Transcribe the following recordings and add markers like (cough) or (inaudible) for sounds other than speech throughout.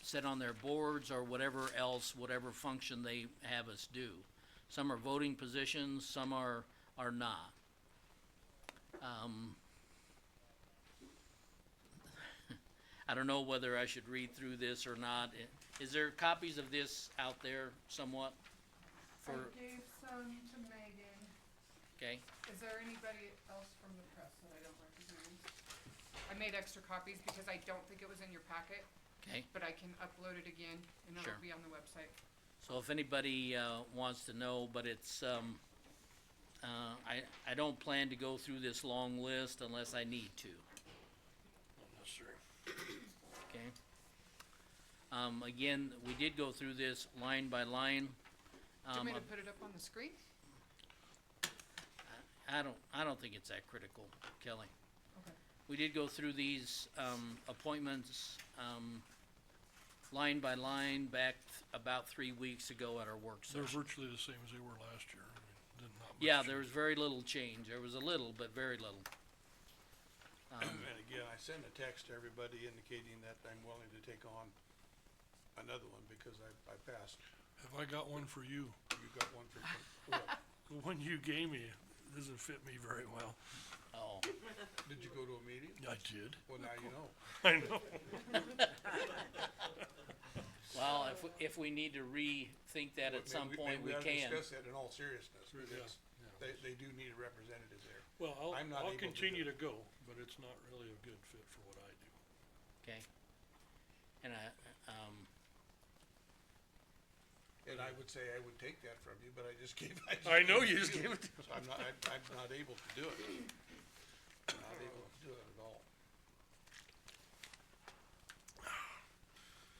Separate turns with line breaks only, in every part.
sit on their boards or whatever else, whatever function they have us do. Some are voting positions, some are, are not. Um, (laughs) I don't know whether I should read through this or not. I- Is there copies of this out there somewhat?
I
For,
gave some to Megan.
okay,
Is there anybody else from the press that I don't recognize? I made extra copies because I don't think it was in your packet,
okay.
but I can upload it again and
Sure.
it'll be on the website.
So if anybody, uh, wants to know, but it's, um, uh, I, I don't plan to go through this long list unless I need to.
Necessary.
Okay. Um, again, we did go through this line by line.
Do you
Um,
want me to put it up on the screen?
I don't, I don't think it's that critical, Kelly.
Okay.
We did go through these, um, appointments, um, line by line back th- about three weeks ago at our work
They're
session.
virtually the same as they were last year. I mean, did not much
Yeah, there was
change.
very little change. There was a little, but very little. Um,
And again, I sent a text to everybody indicating that I'm willing to take on another one because I, I passed.
Have I got one for you?
You got one for, well,
The one you gave me doesn't fit me very well.
oh,
did you go to a meeting?
I did.
Well, now you know.
(laughs) I know. (laughs)
well, if, we- if we need to rethink that at
Maybe
some
we-
point, we
maybe ought to
can.
Discuss that in all seriously.
Yeah, yeah.
They, they do need a representative there.
Well, I'll,
I'm not
I'll
able to do
continue
it.
to go, but it's not really a good fit for what I do.
Okay. And I, um,
And I would say I would take that from you, but I just (laughs) gave. just
I know you just gave it to
So I'm not, I'm, I'm not able to do it. I'm Not able to do it at all.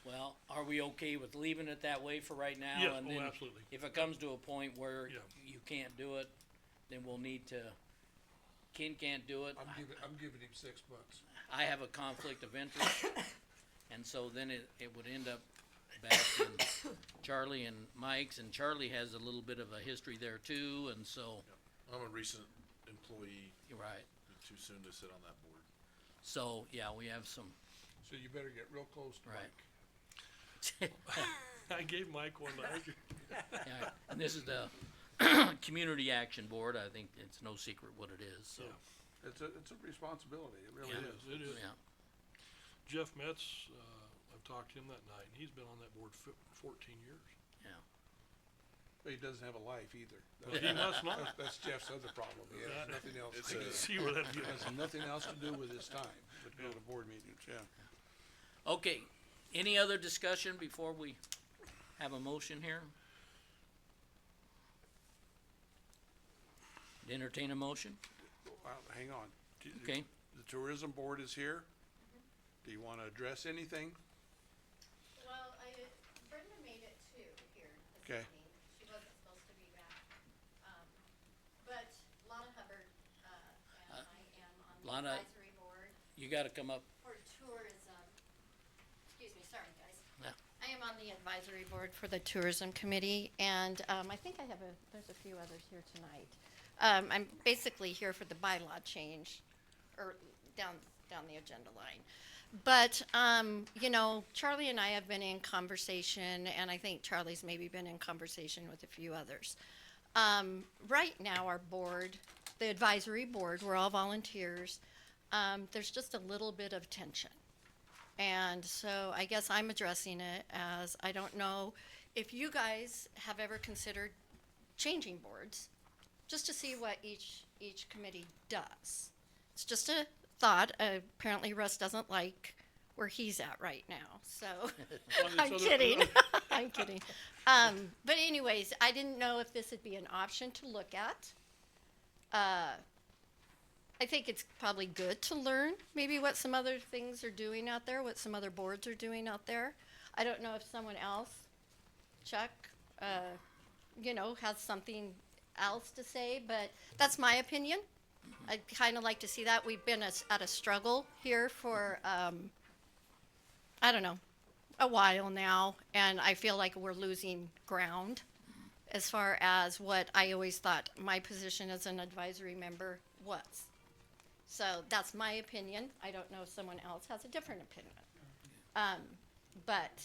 well, are we okay with leaving it that way for right now?
Yeah,
And
oh,
then
absolutely.
If it comes to a point where
Yeah.
you can't do it, then we'll need to, Ken can't do it.
I'm giving, I'm giving him six months.
I have a conflict of interest. And so then it, it would end up back in Charlie and Mike's, and Charlie has a little bit of a history there too, and so,
I'm a recent employee,
you're right.
too soon to sit on that board.
So, yeah, we have some, (laughs)
So you better get real close to
Right.
(laughs)
Mike.
I gave Mike one (laughs) last year.
yeah, and this is the (coughs) Community Action Board, I think it's no secret what it is, so,
Yeah.
It's a, it's a responsibility, it really
It
is.
is, it is.
yeah.
Jeff Metz, uh, I've talked to him that night, and he's been on that board fif- fourteen (laughs) years.
But he doesn't have a life either.
But (laughs) he must not. (laughs)
That's- That's Jeff's other problem, he has
That-
nothing else
it's
to
a-
do.
See where (laughs) that
He
gets.
has nothing else to do with his time, but go to board meetings, yeah.
Okay, any other discussion before we have a motion here? Entertain a motion,
Well, hang on. Do you-
okay?
The tourism board is here. Do you wanna address anything?
Well, I, Brenda made it too here this
Okay.
evening. She wasn't supposed to be back. Um, but Lana Hubbard, uh, and I am on the
Lana-
advisory board
You gotta come up,
for tourism. Excuse me, sorry, guys.
Yeah.
I am on the advisory board for the tourism committee and, um, I think I have a, there's a few others here tonight. Um, I'm basically here for the bylaw change or down, down the agenda line. But, um, you know, Charlie and I have been in conversation, and I think Charlie's maybe been in conversation with a few others. Um, right now, our board, the advisory board, we're all volunteers. Um, there's just a little bit of tension. And so I guess I'm addressing it as, I don't know if you guys have ever considered changing boards, just to see what each, each committee does. It's just a thought. Uh, apparently Russ doesn't like where he's at right now, so I'm
other- (laughs)
kidding. (laughs) I'm kidding. Um, but anyways, I didn't know if this would be an option to look at. Uh, I think it's probably good to learn maybe what some other things are doing out there, what some other boards are doing out there. I don't know if someone else, Chuck, uh, you know, has something else to say, but that's my opinion. I'd kind of like to see that. We've been as- at a struggle here for, um, I don't know, a while now, and I feel like we're losing ground as far as what I always thought my position as an advisory member was. So that's my opinion. I don't know if someone else has a different opinion. Um, but